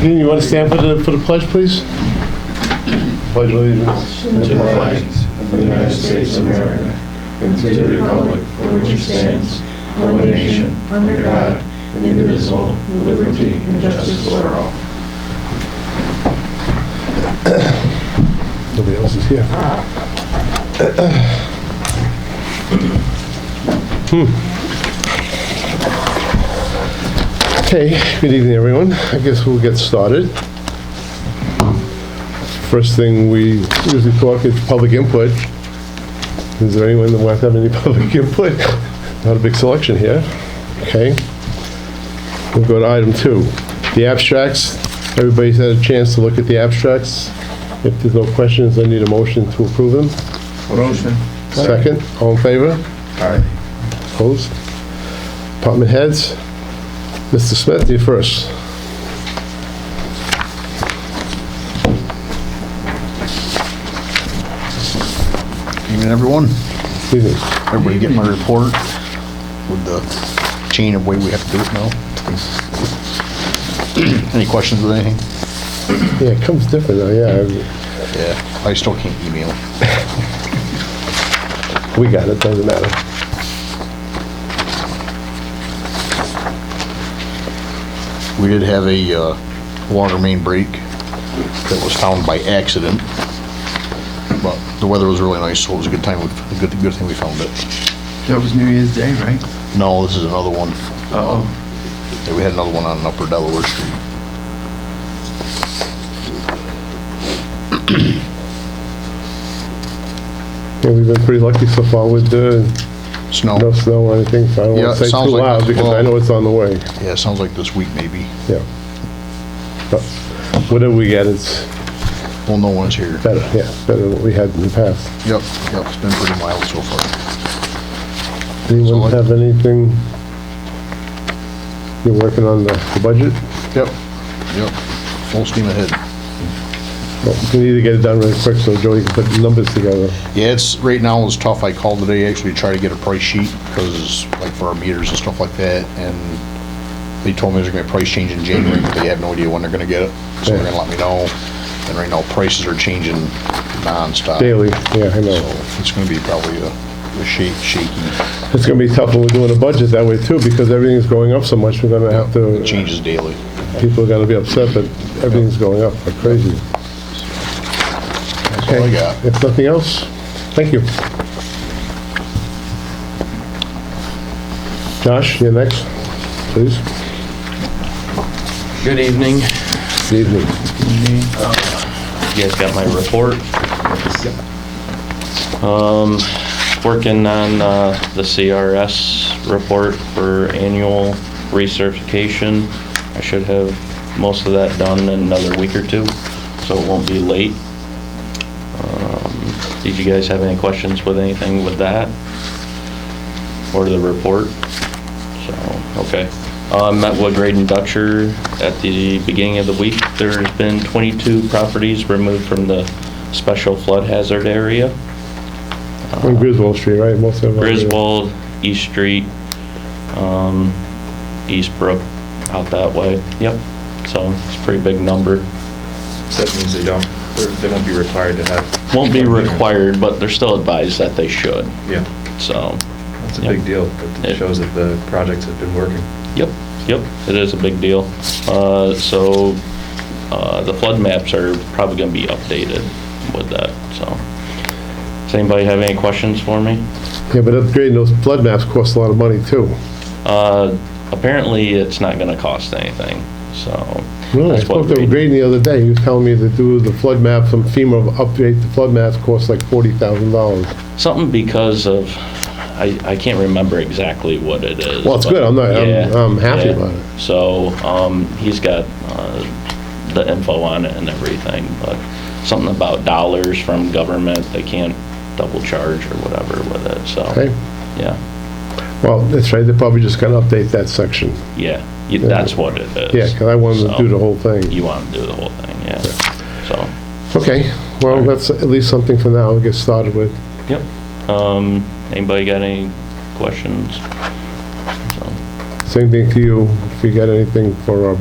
Dean, you want to stand for the, for the pledge, please? Pledge allegiance. to the flag of the United States of America and to the republic for which it stands, one nation, under God, indivisible, with liberty and justice for all. Nobody else is here. Hmm. Okay, Hmm. good evening, everyone. I guess we'll get started. First thing we usually talk is public input. Is there anyone that wants to have any public input? Not a big selection here. Okay. We'll go to item two, the abstracts. Everybody's had a chance to look at the abstracts. If there's no questions, I need a motion to approve them. Motion. Second, all in favor? Aye. Opposed? Department heads? Mr. Smith, you first. Evening, everyone. Evening. Everybody getting my report with the chain of way we have to do it now? Any questions with anything? Yeah, it comes different, now, yeah. Yeah. I still can't email. We got it, doesn't matter. We did have a uh, water main break that was found by accident, but the weather was really nice, so it was a good time, we- a good, good thing we found it. That was New Year's Day, right? No, this is another one. Uh, oh, Uh-oh. Yeah, We had another one on Upper Delaware Street. Yeah, we've been pretty lucky so far with the, Snow. no snow or anything, so I don't Yeah, want it to say sounds too like loud it's- because I well- know it's on the way, Yeah, it sounds like this week maybe. yeah. But Whatever we get, it's We'll know when it's here. better, yeah, better than what we had in the past. Yep, yep, it's been pretty mild so far. Anyone Solid. have anything? You're working on the the budget? Yep. Yep, full steam ahead. Well, We need to get it done really quick so Joey can put the numbers together. Yeah, it's, right now is tough. I called today actually to try to get a price sheet because like for our meters and stuff like that and they told me there's gonna be a price change in January, but they have no idea when they're gonna get it. So they're Yeah. gonna let me know. And right now prices are changing nonstop. Daily, yeah, I So know. it's gonna be probably a a shake, shaky. It's gonna be tough when we're doing a budget that way too, because everything's going up so much, we're gonna have to, It changes daily. people are gonna be upset, but everything's going up like crazy. That's all I Okay, got. if nothing else, thank you. Josh, you're next, please. Good evening. Good evening. You guys got my report? Um, working on, uh, the CRS report for annual recertification. I should have most of that done in another week or two, so it won't be late. Um, Did you guys have any questions with anything with that? Or the report? So, okay. Uh, Met with Graydon Dutcher at the beginning of the week. There's been 22 properties removed from the special flood hazard area. On Griswold Street, right, most of them. are- Griswold, East Street, um, Eastbrook, out that way. Yep. So it's a pretty big number. So That means they don't, they're- they won't be required to have. Won't be required, but they're still advised that they should. Yeah, So, that's a Yeah. big deal. It Yeah. shows that the projects have been working. yep, yep, it is a big deal. Uh, So uh, the flood maps are probably going to be updated with that, so. Does anybody have any questions for me? Yeah, but upgrading those flood maps costs a lot of money too. Uh, Apparently, it's not going to cost anything, so. Really? I that's what spoke to we- Graydon the other day, he was telling me to do the flood map, some FEMA update, the flood maps cost like forty thousand dollars. Something because of, I, I can't remember exactly what it is. Well, it's but- good. I'm not- I'm- Yeah, I'm happy yeah. about it. So, um, he's got, uh, the info on it and everything, but something about dollars from government, they can't double charge or whatever with it, so. Okay. Yeah, Well, that's right, they're probably just gonna update that section. yeah, you- that's what it is. Yeah, 'cause I wanted to do the whole So, thing. You want to do the whole thing, yeah, so. Okay, well, that's at least something for now to get started with. Yep. Um, anybody got any questions? So- Same thing to you, if you got anything for uh, our